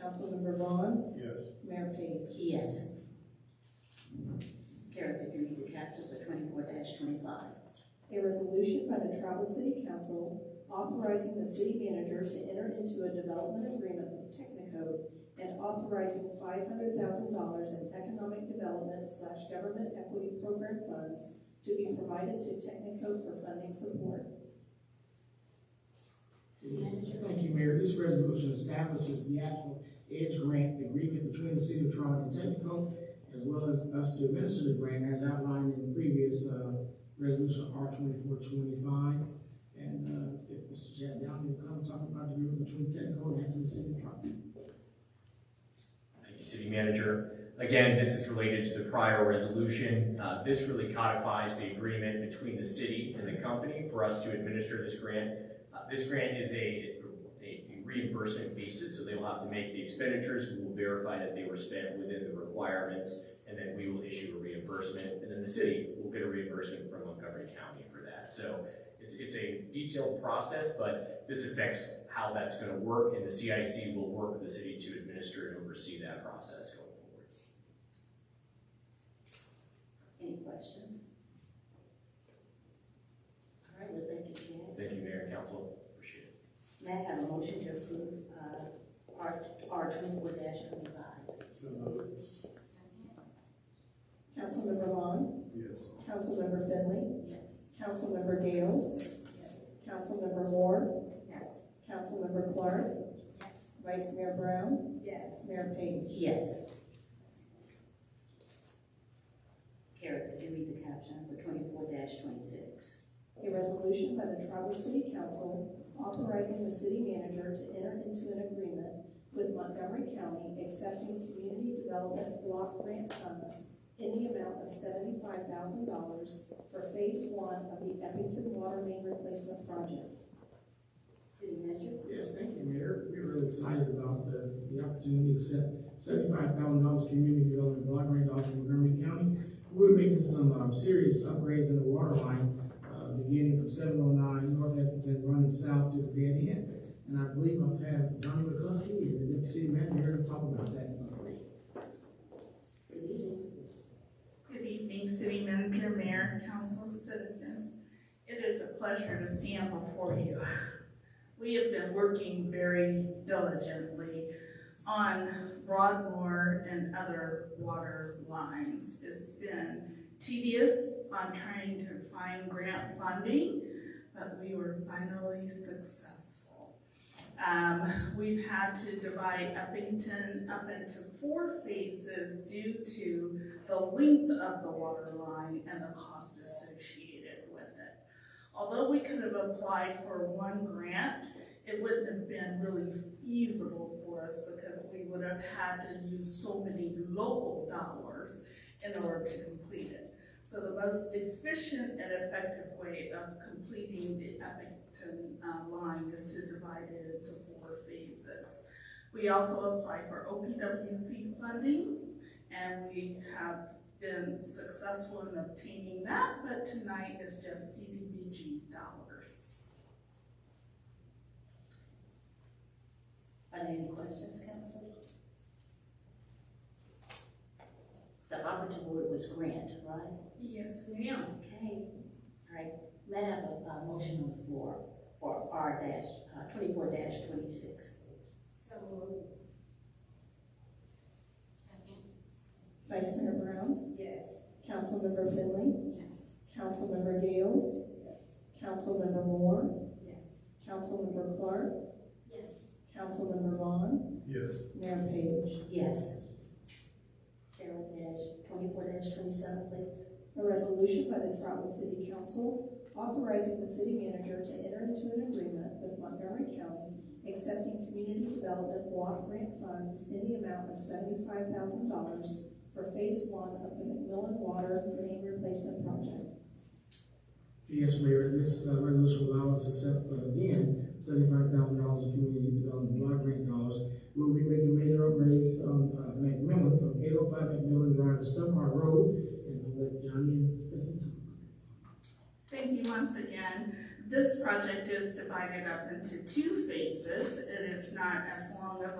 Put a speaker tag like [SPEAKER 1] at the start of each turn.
[SPEAKER 1] Councilmember Vaughn,
[SPEAKER 2] Yes.
[SPEAKER 1] Mayor Payne.
[SPEAKER 3] Yes. Kara, could you read the caption for twenty-four twenty-five?
[SPEAKER 1] A resolution by the Trotwood City Council authorizing the city manager to enter into a development agreement with Technicode and authorizing five hundred thousand dollars in economic development slash government equity program funds to be provided to Technicode for funding support.
[SPEAKER 4] Thank you, Mayor. This resolution establishes the actual Edge Grant Agreement between the City of Toronto and Technical, as well as us to administer the grant as outlined in the previous, uh, resolution R twenty-four twenty-five. And, uh, if Mr. Chad Downey will come talk about the agreement between Technical and actually the City of Toronto.
[SPEAKER 5] Thank you, City Manager. Again, this is related to the prior resolution. Uh, This really codifies the agreement between the city and the company for us to administer this grant. Uh, This grant is a a reimbursement basis, so they will have to make the expenditures. We will verify that they were spent within the requirements, and then we will issue a reimbursement. And then the city will get a reimbursement from Montgomery County for that. So it's it's a detailed process, but this affects how that's gonna work, and the CIC will work with the city to administer and oversee that process going forward.
[SPEAKER 3] Any questions? All right, well, thank you, Chad.
[SPEAKER 5] Thank you, Mayor and Council, appreciate it.
[SPEAKER 3] May I have a motion to approve, uh, R, R twenty-four twenty-five?
[SPEAKER 2] So moved.
[SPEAKER 1] Councilmember Vaughn,
[SPEAKER 2] Yes.
[SPEAKER 1] Councilmember Finley,
[SPEAKER 3] Yes.
[SPEAKER 1] Councilmember Gales, Councilmember Moore,
[SPEAKER 3] Yes.
[SPEAKER 1] Councilmember Clark, Vice Mayor Brown,
[SPEAKER 3] Yes.
[SPEAKER 1] Mayor Payne.
[SPEAKER 3] Yes. Kara, could you read the caption for twenty-four twenty-six?
[SPEAKER 1] A resolution by the Trotwood City Council authorizing the city manager to enter into an agreement with Montgomery County accepting community development block grant funds in the amount of seventy-five thousand dollars for phase one of the Eppington Water Main Replacement Project.
[SPEAKER 3] City Manager?
[SPEAKER 4] Yes, thank you, Mayor. We're really excited about the, the opportunity to accept seventy-five thousand dollars community development block grant off from Montgomery County. We're making some, um, serious upgrades in the water line, uh, beginning from seven oh nine North Eppington, running south to the dead end. And I believe I've had Donnie McCluskey and the deputy city manager here to talk about that.
[SPEAKER 3] Good evening.
[SPEAKER 6] Good evening, City Manager, Mayor, Council, citizens. It is a pleasure to stand before you. We have been working very diligently on Broadmoor and other water lines. It's been tedious on trying to find grant funding, but we were finally successful. Um, We've had to divide Uppington up into four phases due to the length of the water line and the cost associated with it. Although we could have applied for one grant, it wouldn't have been really feasible for us because we would have had to use so many local dollars in order to complete it. So the most efficient and effective way of completing the Eppington uh, line is to divide it into four phases. We also apply for OPWC funding and we have been successful in obtaining that, but tonight is just CDBG dollars.
[SPEAKER 3] Are there any questions, council? The operative word was grant, right?
[SPEAKER 6] Yes, ma'am.
[SPEAKER 3] Okay, all right. May I have a, uh motion on the floor for R dash, uh, twenty-four dash twenty-six, please?
[SPEAKER 1] Vice Mayor Brown,
[SPEAKER 3] Yes.
[SPEAKER 1] Councilmember Finley,
[SPEAKER 3] Yes.
[SPEAKER 1] Councilmember Gales, Councilmember Moore,
[SPEAKER 3] Yes.
[SPEAKER 1] Councilmember Clark,
[SPEAKER 3] Yes.
[SPEAKER 1] Councilmember Vaughn,
[SPEAKER 2] Yes.
[SPEAKER 1] Mayor Payne.
[SPEAKER 3] Yes. Carol dash, twenty-four dash twenty-seven, please?
[SPEAKER 1] A resolution by the Trotwood City Council authorizing the city manager to enter into an agreement with Montgomery County accepting community development block grant funds in the amount of seventy-five thousand dollars for phase one of the McMillan Water Main Replacement Project.
[SPEAKER 4] Yes, Mayor, this uh, resolution will allow us to accept, uh, again, seventy-five thousand dollars in community development block grant dollars. We'll be making major upgrades on, uh, McMillan from eight oh five McMillan Drive to Stumpard Road. And I'll let Johnny and Stephanie talk about it.
[SPEAKER 6] Thank you once again. This project is divided up into two phases. It is not as long of